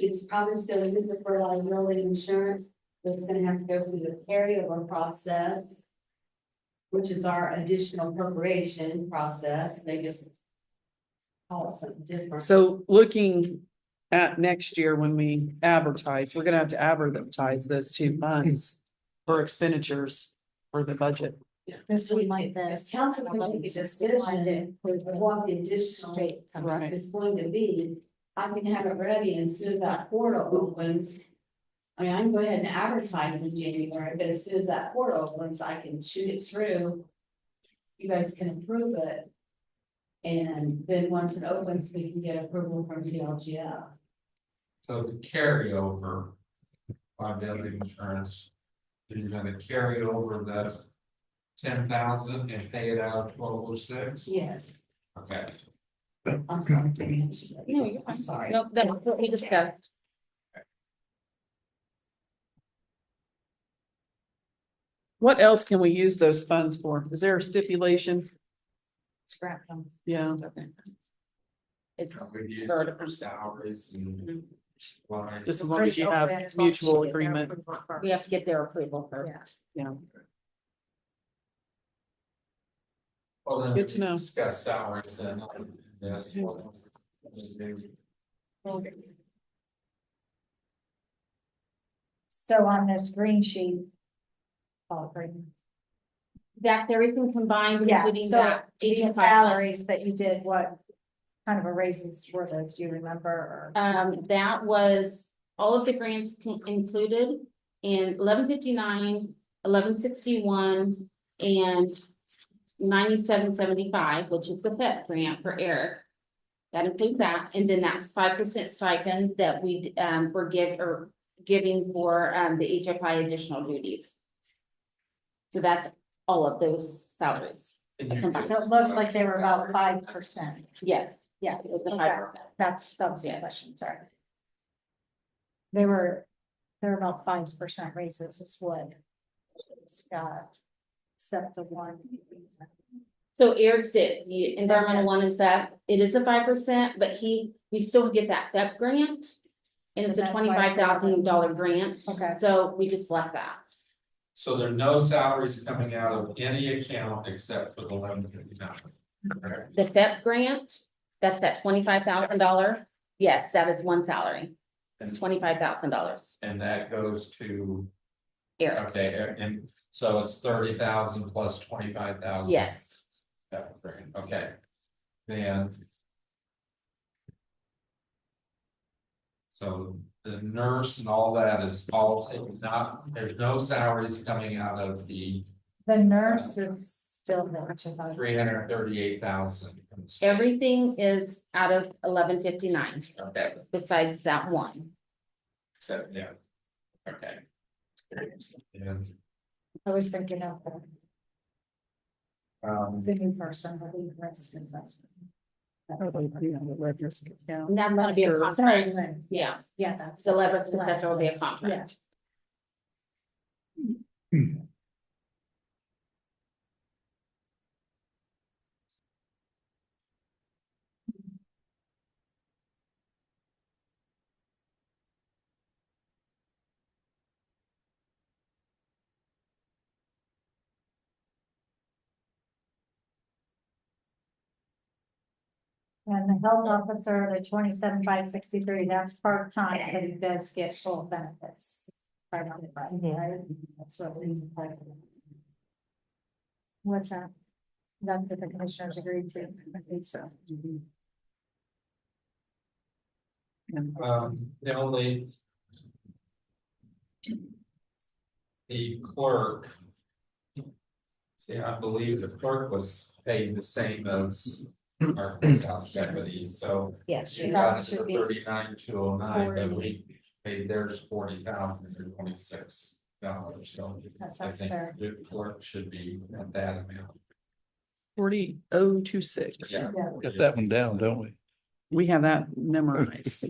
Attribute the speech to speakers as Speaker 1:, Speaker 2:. Speaker 1: it's probably still in the for liability insurance, but it's gonna have to go through the carryover process. Which is our additional appropriation process, they just. Call it something different.
Speaker 2: So looking at next year when we advertise, we're gonna have to advertise those two months for expenditures for the budget.
Speaker 3: This we might
Speaker 1: If
Speaker 3: this.
Speaker 1: council can make a decision with what the additional rate
Speaker 2: Right.
Speaker 1: is going to be, I can have it ready and as soon as that portal opens. I mean, I can go ahead and advertise in January, but as soon as that portal opens, I can shoot it through. You guys can approve it. And then once it opens, we can get approval from DLGF.
Speaker 4: So the carryover. Liability insurance. You're gonna carry over that. Ten thousand and pay it out of twelve oh six,
Speaker 1: Yes.
Speaker 4: okay,
Speaker 1: I'm sorry. for the answer.
Speaker 3: No, you're fine.
Speaker 1: I'm sorry.
Speaker 3: Nope, that's what we discussed.
Speaker 2: What else can we use those funds for? Is there a stipulation?
Speaker 3: Scrap them.
Speaker 2: Yeah.
Speaker 3: It's
Speaker 4: we use
Speaker 3: Sure.
Speaker 4: it for salaries and. supplies.
Speaker 2: Mm-hmm. Just as long as you have mutual agreement,
Speaker 3: We have to get their approval first.
Speaker 2: yeah.
Speaker 4: Well, then
Speaker 2: Good to
Speaker 4: we
Speaker 2: know. Mm-hmm.
Speaker 4: Discuss salaries and this one. Just do-
Speaker 5: So on this green sheet. All green.
Speaker 3: That's everything combined,
Speaker 5: Yeah,
Speaker 3: including
Speaker 5: so
Speaker 3: that.
Speaker 5: The
Speaker 3: 18,500.
Speaker 5: salaries that you did, what kind of a raises were those, do you remember? or-
Speaker 3: Um, that was all of the grants con- included in eleven fifty-nine, eleven sixty-one, and ninety-seven seventy-five, which is the FEP grant for Eric. That includes that, and then that's five percent stipend that we, um, were give, or giving for, um, the HFI additional duties. So that's all of those salaries,
Speaker 4: and you
Speaker 3: Okay.
Speaker 4: do-
Speaker 5: So it looks like they were about five percent.
Speaker 3: yes, yeah, it was the
Speaker 5: Okay.
Speaker 3: five percent.
Speaker 5: That's, that was the question, sorry. They were, they're about five percent raises is what. Scott. Except the one.
Speaker 3: So Eric's it, the environmental one is that, it is a five percent, but he, we still get that FEP grant. And it's
Speaker 5: So
Speaker 3: a
Speaker 5: that's why
Speaker 3: twenty-five
Speaker 5: it's
Speaker 3: thousand dollar grant,
Speaker 5: Okay,
Speaker 3: so we just left that.
Speaker 4: So there are no salaries coming out of any account except for the eleven fifty nine.
Speaker 3: The FEP grant, that's that twenty-five thousand dollar, yes, that is one salary. It's twenty-five thousand dollars,
Speaker 4: And that goes to,
Speaker 3: Eric,
Speaker 4: okay, and so it's thirty thousand plus twenty-five thousand.
Speaker 3: yes.
Speaker 4: That would bring it, okay. Then. So the nurse and all that is all taken, not, there's no salaries coming out of the
Speaker 5: the nurse is still not.
Speaker 4: three hundred thirty-eight thousand.
Speaker 3: Everything is out of eleven fifty-nine
Speaker 4: Okay,
Speaker 3: besides that one.
Speaker 4: so, yeah. Okay. And,
Speaker 5: I was thinking of the-
Speaker 4: um,
Speaker 5: the new person, the lead risk assessment.
Speaker 3: And that's gonna be a
Speaker 2: Sure.
Speaker 3: contract,
Speaker 5: Sorry, Lynn.
Speaker 3: yeah,
Speaker 5: Yeah, that's.
Speaker 3: so leverage successor will be a contract.
Speaker 5: And the health officer, the twenty-seven, five sixty-three, that's part-time, but he does get full benefits. Right on the right, right? That's what leads to part of it. What's that? That's what the commissioners agreed to. I think so.
Speaker 4: Um, the only. The clerk. See, I believe the clerk was paid the same as our courthouse deputies, so
Speaker 3: Yeah.
Speaker 4: she
Speaker 5: Yeah.
Speaker 4: got it
Speaker 5: Should
Speaker 4: for
Speaker 5: be
Speaker 4: thirty-nine, two oh nine, but
Speaker 5: forty.
Speaker 4: we paid theirs forty thousand and twenty-six dollars, so.
Speaker 5: That
Speaker 4: I
Speaker 5: sounds
Speaker 4: think
Speaker 5: fair.
Speaker 4: the clerk should be at that amount.
Speaker 2: Forty oh two six.
Speaker 4: Yeah.
Speaker 5: Yeah.
Speaker 6: Got that one down, don't we?
Speaker 2: We have that memorized.